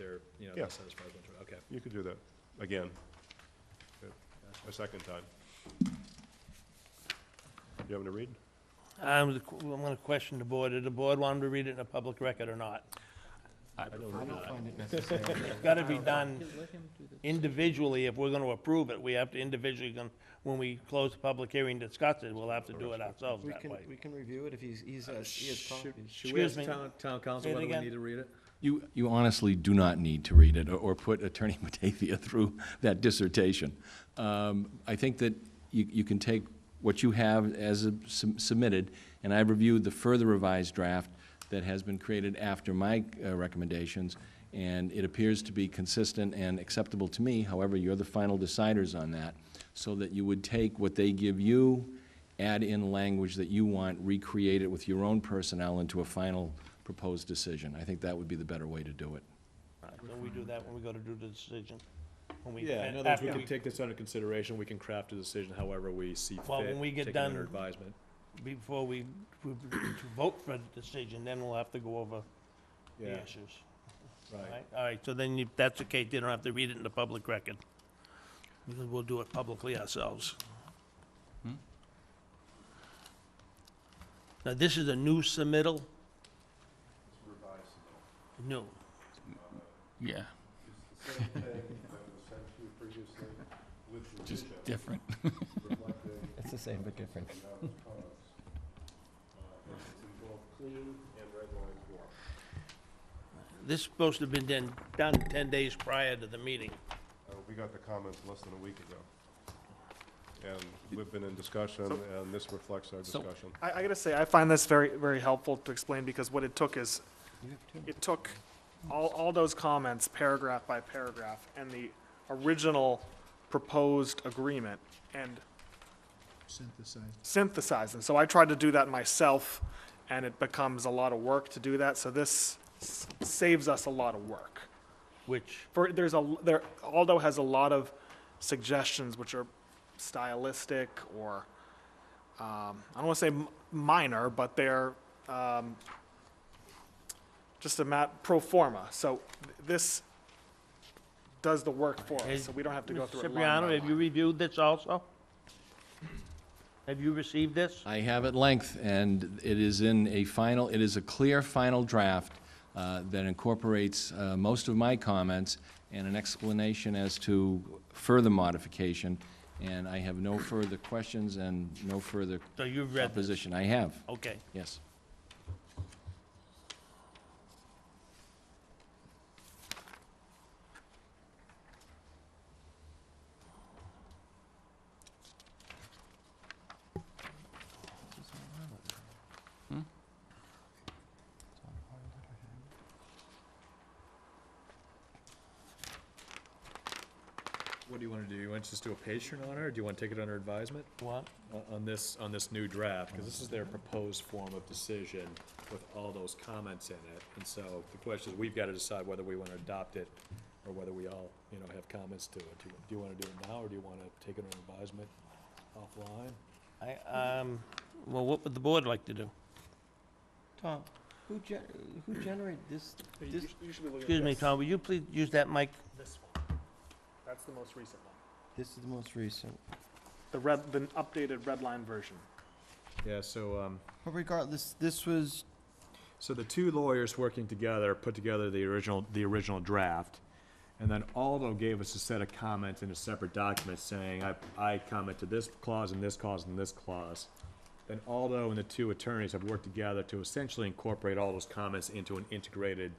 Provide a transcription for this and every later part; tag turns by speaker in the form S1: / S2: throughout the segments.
S1: or, you know,
S2: Yeah.
S1: not satisfied with one, okay.
S2: You could do that, again, a second time. You having to read?
S3: I'm, Um, I'm gonna question the board, did the board want him to read it in a public record or not?
S4: I don't find it necessary.
S3: It's gotta be done individually, if we're gonna approve it, we have to individually, gon- when we close the public hearing, discuss it, we'll have to do it ourselves
S4: We
S3: that
S4: can,
S3: way.
S4: we can review it if he's, he's, has- he has
S1: Should-
S4: copies.
S1: Should we ask
S3: Excuse me.
S1: town, town
S3: Say
S1: council
S3: it
S1: whether we
S3: again.
S1: need to read it?
S5: You, you honestly do not need to read it or- or put Attorney Batavia through that dissertation. Um, I think that you, you can take what you have as a- sub- submitted, and I reviewed the further revised draft that has been created after my uh, recommendations, and it appears to be consistent and acceptable to me. However, you're the final deciders on that, so that you would take what they give you, add in language that you want, recreate it with your own personnel into a final proposed decision. I think that would be the better way to do it.
S3: Alright, So we do that when we go to do the decision. When we-
S1: Yeah, in other words,
S3: after
S1: we can take this under consideration, we can craft a decision however we see fit.
S3: Well, when we get
S1: take it under
S3: done-
S1: advisement.
S3: Before we, we- to vote for the decision, then we'll have to go over the
S1: Yeah,
S3: issues.
S1: right.
S3: All right, so then if that's the case, they don't have to read it in the public record. Because we'll do it publicly ourselves.
S5: Hmm?
S3: Now, this is a new submittal? New.
S6: Yeah, just different.
S4: It's the same but different.
S3: This is supposed to have been done, done 10 days prior to the meeting.
S2: Uh, We got the comments less than a week ago. And we've been in discussion, and this reflects our
S6: So-
S2: discussion.
S7: I, I gotta say, I find this very, very helpful to explain, because what it took is, it took all, all those comments, paragraph by paragraph, and the original proposed agreement, and
S4: Synthesized.
S7: synthesize them. So I tried to do that myself, and it becomes a lot of work to do that, so this s- saves us a lot of work.
S3: Which,
S7: For, there's a, l- there, Aldo has a lot of suggestions which are stylistic or, um, I don't wanna say m- minor, but they're, um, just a map, pro forma, so th- this does the work for
S3: Hey,
S7: us, so we don't have to go
S3: Mr.
S7: through it line
S3: Cipriano,
S7: by
S3: have you
S7: line.
S3: reviewed this also? Have you received this?
S5: I have at length, and it is in a final, it is a clear final draft uh, that incorporates uh, most of my comments and an explanation as to further modification, and I have no further questions and no further
S3: So you've read this?
S5: opposition. I have,
S3: Okay.
S5: yes.
S1: What do you wanna do? You want to just do a patron on it, or do you wanna take it under advisement?
S3: What?
S1: on- on this, on this new draft, because this is their proposed form of decision with all those comments in it. And so the question is, we've got to decide whether we want to adopt it or whether we all, you know, have comments to it. Do you- do you want to do it now, or do you want to take it under advisement offline?
S3: I, um, well, what would the board like to do?
S4: Tom, who gen, who generated this?
S7: You-
S4: This-
S7: you should be looking at
S3: Excuse me,
S7: this.
S3: Tom, will you please use that mic?
S7: This one. That's the most recent one.
S4: This is the most recent.
S7: The red, the updated red line version.
S1: Yeah, so, um,
S4: But regardless, this was,
S1: So the two lawyers working together put together the original, the original draft. And then Aldo gave us a set of comments in a separate document saying, I, I comment to this clause and this clause and this clause. Then Aldo and the two attorneys have worked together to essentially incorporate all those comments into an integrated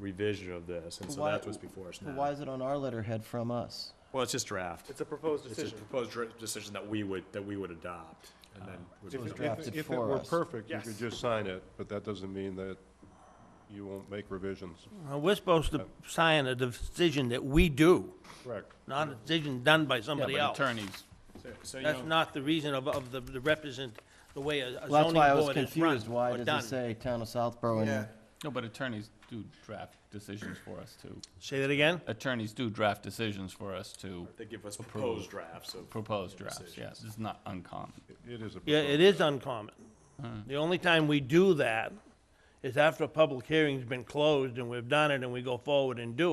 S1: revision of this. And so
S4: Why-
S1: that's what's before us
S4: why
S1: now.
S4: is it on our letterhead from us?
S1: Well, it's just draft.
S7: It's a proposed
S1: It's a
S7: decision.
S1: proposed dr- decision that we would, that we would adopt and then.
S4: It was
S1: would-
S4: drafted
S2: If it
S4: for
S2: were
S4: us.
S2: perfect, you could
S7: Yes.
S2: just sign it, but that doesn't mean that you won't make revisions.
S3: Uh, We're supposed to sign a decision that we do,
S2: Correct.
S3: not a decision done by
S6: Yeah,
S3: somebody
S6: but
S3: else.
S6: attorneys,
S1: So- So, you know.
S3: That's not the reason of, of the the represent, the way a a
S4: Well, that's
S3: zoning
S4: why I was
S3: board is run
S4: confused. Why
S3: or
S4: does
S3: Oh, done.
S4: it say town of Southborough and
S6: no, but attorneys do draft decisions for us too.
S3: Say that again?
S6: Attorneys do draft decisions for us to
S1: They give us proposed drafts of.
S6: propose drafts, yes, it's not uncommon.
S2: It is a.
S3: Yeah, it is uncommon. The only time we do that is after a public hearing's been closed and we've done it and we go forward and do it.